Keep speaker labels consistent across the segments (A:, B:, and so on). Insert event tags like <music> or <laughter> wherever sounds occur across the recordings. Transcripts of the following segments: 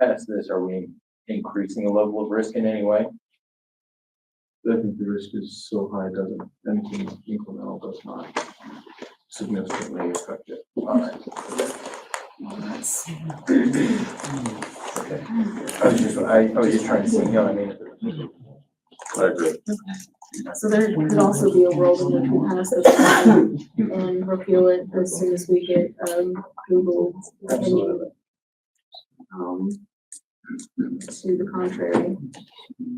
A: past this, are we increasing the level of risk in any way?
B: I think the risk is so high, it doesn't, anything incremental does not significantly affect it.
A: All right. Okay. I was just, I, I was just trying to see, you know, what I mean.
B: I agree.
C: So there could also be a world in which we pass this plan and repeal it as soon as we get, um, Google.
B: Absolutely.
C: Um, to the contrary.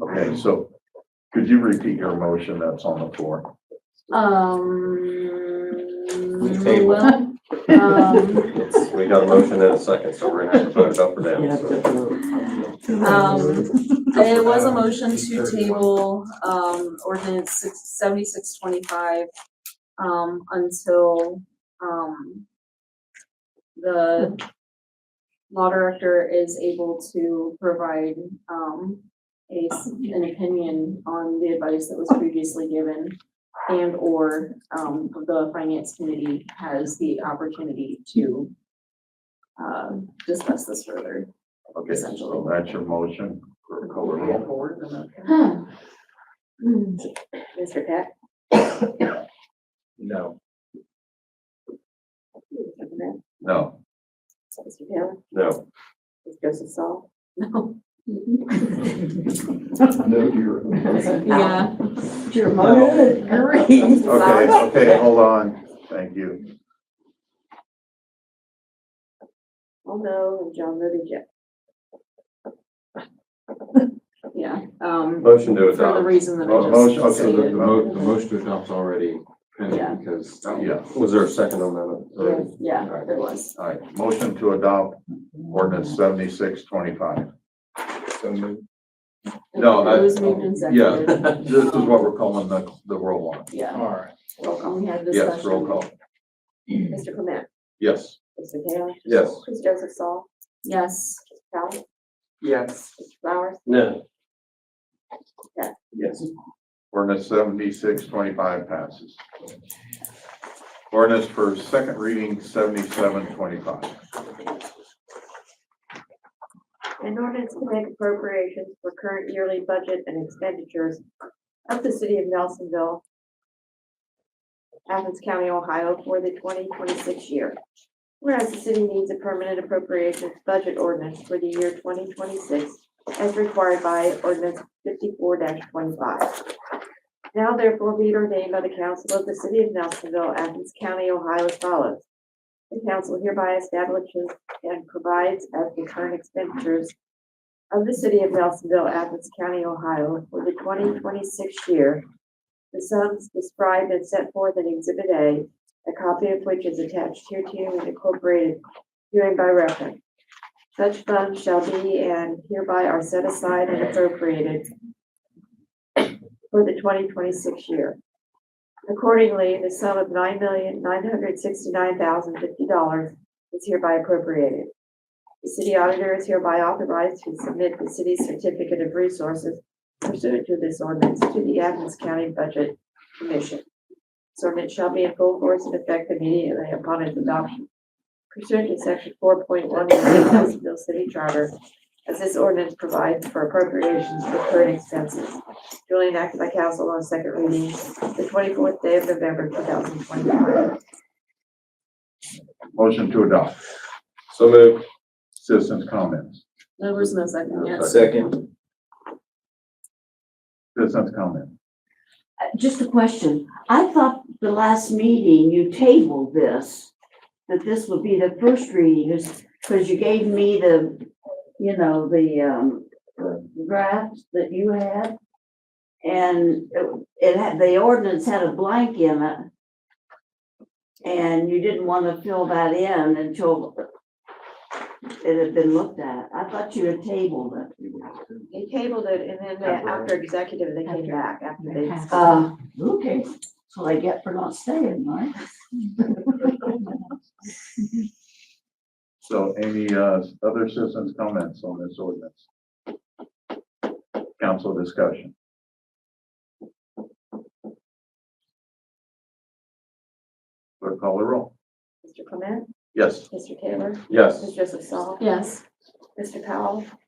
D: Okay, so could you repeat your motion that's on the floor?
C: Um.
A: We table.
C: well, Um,
E: It's, we got a motion and a second, so we're gonna have to vote it up or down. so.
C: um, it was a motion to table, um, ordinance six, seventy-six twenty-five, um, until, um, the law director is able to provide, um, a, s- an opinion on the advice that was previously given and/or, um, the finance committee has the opportunity to, uh, discuss this further.
D: Okay, so that's your motion. Call the roll.
C: Mr. Peck?
A: No.
C: Mr.
D: No,
C: Taylor?
E: No,
C: Ms. Joseph Saul? No.
B: No, you're.
C: Yeah.
F: Your motor, great.
D: okay, okay, hold on. Thank you.
C: Oh, no, and John voted yes. Yeah, um,
E: motion to
C: for the
E: adopt.
C: reason that
D: Mo-
C: I
D: Motion,
C: just
D: okay, the- the
C: stated.
D: mo-
B: the motion to adopt's already
C: Yeah.
B: pending because.
D: yeah,
E: Was there a second on that?
C: Yeah,
E: already?
C: Yeah, there was.
D: all right. Motion to adopt ordinance seventy-six twenty-five.
A: So moved.
D: No, I-
C: It was moved and
D: Yeah,
C: seconded.
D: this is what we're calling the, the roll on. <laughs>
C: Yeah,
A: All right.
C: roll call, we had discussion.
D: Yes, roll call.
G: Mr. Clement,
D: Yes.
G: Mr. Taylor,
E: Yes.
G: Ms. Joseph Saul,
C: Yes.
G: Mr. Powell,
A: Yes.
G: Mr. Flowers,
E: No,
A: Yes.
D: Ordinance seventy-six twenty-five passes. Ordinance for second reading seventy-seven twenty-five.
G: an ordinance to make appropriations for current yearly budget and expenditures of the city of Nelsonville, Athens County, Ohio, for the twenty twenty-six year. Whereas the city needs a permanent appropriations budget ordinance for the year twenty twenty-six as required by ordinance fifty-four twenty-five. Now therefore be it ordained by the council of the city of Nelsonville, Athens County, Ohio as follows. The council hereby establishes and provides as the current expenditures of the city of Nelsonville, Athens County, Ohio, for the twenty twenty-six year. The sums described and set forth in Exhibit A, a copy of which is attached here to and incorporated herein by reference. Such funds shall be and hereby are set aside and appropriated for the twenty twenty-six year. Accordingly, the sum of nine million, nine hundred sixty-nine thousand, fifty dollars is hereby appropriated. The city auditor is hereby authorized to submit the city's certificate of resources pursuant to this ordinance to the Athens County Budget Commission. This ordinance shall be in full force and effect immediately upon its adoption pursuant to section four point one of the Nelsonville City Charter, as this ordinance provides for appropriations for current expenses duly enacted by council on second reading the twenty-fourth day of November, two thousand twenty-five.
D: Motion to adopt.
E: so moved.
D: Citizens' comments.
C: There was no second, yes.
A: Second.
D: Citizens' comment.
F: Uh, Just a question. I thought the last meeting you tabled this, that this would be the first reading, because you gave me the, you know, the, um, draft that you had. And it- it had, the ordinance had a blank in it. And you didn't want to fill that in until it had been looked at. I thought you had tabled it.
G: They tabled it and then uh, after executive, they came back after they.
F: Uh, okay, that's what I get for not staying, right?
D: So any, uh, other citizens' comments on this ordinance? Council discussion. Clerk call the roll.
G: Mr. Clement,
D: Yes.
G: Mr. Taylor,
E: Yes.
G: Mr. Joseph Saul,
C: Yes.
G: Mr. Powell?